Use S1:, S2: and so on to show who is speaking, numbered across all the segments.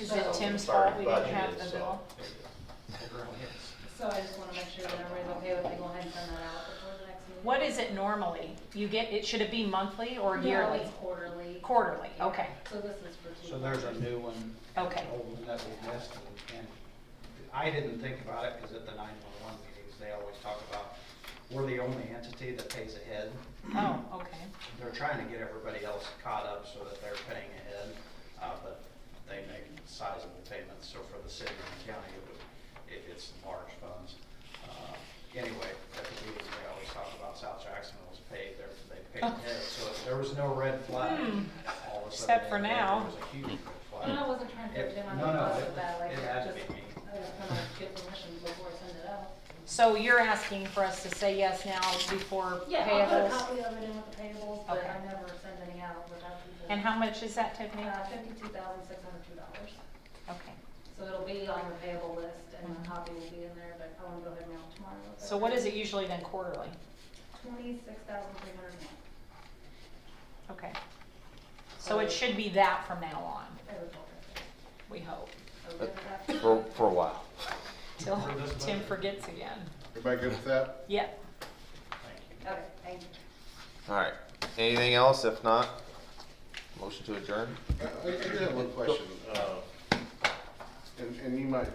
S1: Is
S2: So-
S1: it Tim's fault we don't
S3: Budget
S1: have
S3: is,
S1: the
S3: so-
S1: bill?
S2: So I just wanna make sure that everybody's okay with me going ahead and send that out before the next meeting.
S1: What is it normally? You get, it, should it be monthly or
S2: No,
S1: yearly?
S2: it's quarterly.
S1: Quarterly, okay,
S2: So this is for two.
S4: So there's a
S2: months.
S4: new one.
S1: Okay.
S4: an Old one that we missed, and I didn't think about it, because at the nine-one-one meetings, they always talk about, we're the only entity that pays ahead.
S1: oh, okay.
S4: They're trying to get everybody else caught up so that they're paying ahead, uh, but they make sizable payments, so for the city and the county, it would, it, it's large funds. Uh, Anyway, at the meetings, they always talk about South Jackson was paid, they're, they paid ahead, so there was no red flag.
S1: Oh. Hmm.
S4: All of a sudden,
S1: Except for
S4: there
S1: now.
S4: was a huge red flag.
S2: No, I wasn't trying to put
S4: It-
S2: Jim on the
S4: no, no,
S2: bus
S4: it-
S2: with that, like,
S4: it had to
S2: just,
S4: be me.
S2: I just wanna get permission before I send it out.
S1: So you're asking for us to say yes now before
S2: Yeah, I'll put a
S1: payables?
S2: copy of it in with the payables, but I
S1: Okay.
S2: never send any out without people.
S1: And how much is that, Tiffany?
S2: Uh, fifty-two thousand, six hundred two dollars.
S1: Okay.
S2: So it'll be on your payable list and the copy will be in there, but I wanna go ahead and mail it tomorrow.
S1: So what is it usually then quarterly?
S2: Twenty-six thousand, three hundred and one,
S1: Okay. So
S2: Uh,
S1: it should be that from now on,
S2: every quarter.
S1: we hope,
S2: Okay with that?
S5: for, for a while.
S1: till
S4: For this
S1: Tim
S4: budget.
S1: forgets again.
S6: Everybody good with that?
S1: Yep.
S2: Okay, thank you.
S5: All right. Anything else? If not, motion to adjourn.
S6: I I do have one question, uh, and, and you might,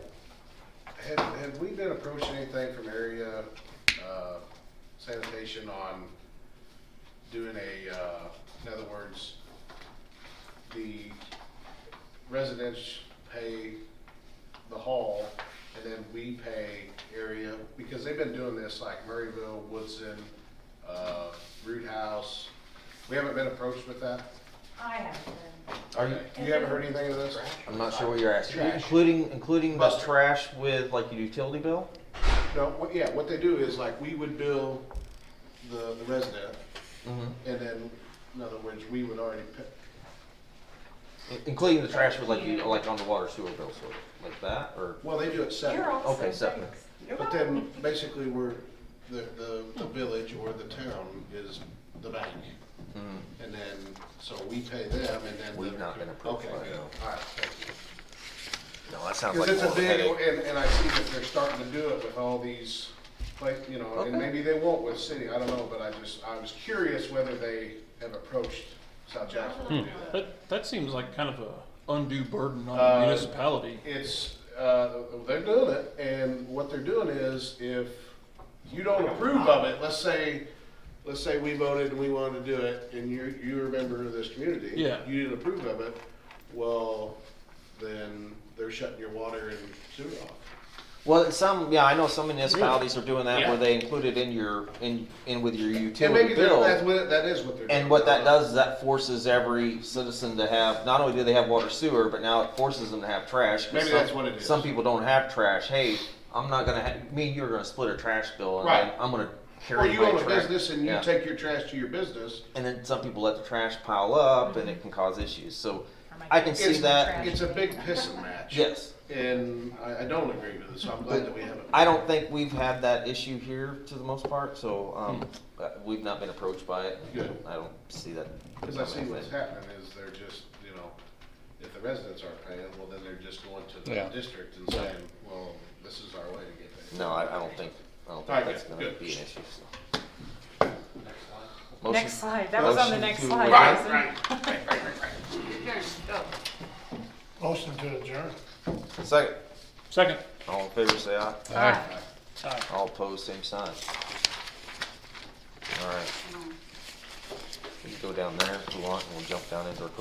S6: had, had we been approaching anything from area, uh, sanitation on doing a, uh, in other words, the residents pay the hall, and then we pay area, because they've been doing this like Murrayville, Woodson, uh, Root House, we haven't been approached with that?
S2: I have been.
S5: Are you?
S6: You haven't heard anything of this?
S5: I'm not sure what you're asking.
S6: Trash.
S5: Including including the
S6: Buster.
S5: trash with like your utility bill.
S6: No, what, yeah, what they do is like, we would bill the, the resident,
S5: Mm-hmm.
S6: and then, in other words, we would already pay.
S5: Including the trash with like you like on the water sewer bill sort of like that or
S6: Well, they do it separate,
S5: okay separate.
S6: but then basically we're, the, the, the village or the town is the bank.
S5: Mm.
S6: And then, so we pay them and then. the-
S5: We've not been approved
S6: Okay,
S5: by
S6: good,
S5: them.
S6: alright, thank you.
S5: No, that sounds
S6: Because
S5: like
S6: it's
S5: more
S6: a
S5: of a
S6: big,
S5: headache.
S6: and, and I see that they're starting to do it with all these, like, you know, and
S5: Okay.
S6: maybe they won't with city, I don't know, but I just, I was curious whether they have approached South Jackson to do that.
S7: That, that seems like kind of a undue burden on
S6: Uh,
S7: the municipality.
S6: It's, uh, they're doing it, and what they're doing is, if you don't approve of it, let's say, let's say we voted and we wanted to do it, and you're, you're a member of this community.
S7: Yeah.
S6: You didn't approve of it, well, then they're shutting your water and sewer off.
S5: Well, it's some yeah, I know some municipalities are doing that where they include it in your in in with your
S6: And
S5: utility
S6: maybe
S5: bill.
S6: they're- that's what, that is what they're doing.
S5: And what that
S6: Uh,
S5: does is that forces every citizen to have, not only do they have water sewer, but now it forces them to have trash. 'cause
S6: Maybe
S5: some-
S6: that's what it is.
S5: Some people don't have trash. Hey, I'm not gonna, ha- me and you are gonna split a trash bill and I'm,
S6: Right.
S5: I'm gonna
S6: Or
S5: carry
S6: you
S5: my
S6: own a
S5: trash.
S6: business and you
S5: Yeah.
S6: take your trash to your business.
S5: And then some people let the trash pile up and it can cause issues. So I can see
S6: It's-
S5: that.
S6: It's a big pissing match.
S5: Yes.
S6: And I, I don't agree with it, so I'm glad that we haven't.
S5: I don't think we've had that issue here to the most part, so, um, uh, we've not been approached by it.
S6: Hmm. Good.
S5: I don't see that.
S6: Cause I see
S5: becoming a
S6: what's
S5: thing.
S6: happening is they're just, you know, if the residents aren't paying, well, then they're just going to the
S7: Yeah.
S6: district and saying, well, this is our way to get paid.
S5: No, I, I don't think, I don't
S6: Alright,
S5: think that's
S6: good,
S5: gonna
S6: good.
S5: be an issue, so. Motion-
S1: Next slide, that was on the
S5: motion
S1: next
S5: to
S1: slide,
S5: adjourn.
S1: wasn't it?
S8: Motion to adjourn.
S5: Second,
S7: Second.
S5: all in favor, say aye.
S7: Aye.
S5: All opposed, same sign. All right. We can go down there if we want, and we'll jump down into our